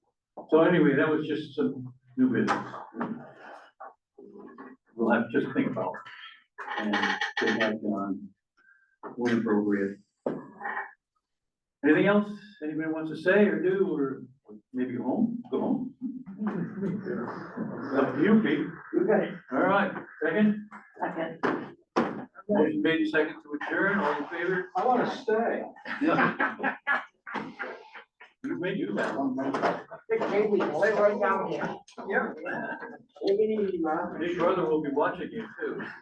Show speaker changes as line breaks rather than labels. So anyway, that was just some new business. We'll have to just think about. And get that done when appropriate. Anything else anybody wants to say or do, or maybe go home, go home? Up to you, Pete.
You got it.
All right, second,
Second.
motion made second to adjourn, all in favor?
I wanna stay.
Yeah. You may do that one.
Maybe we can live right down here.
Yeah.
Take it easy, Rob.
Big brother will be watching you too.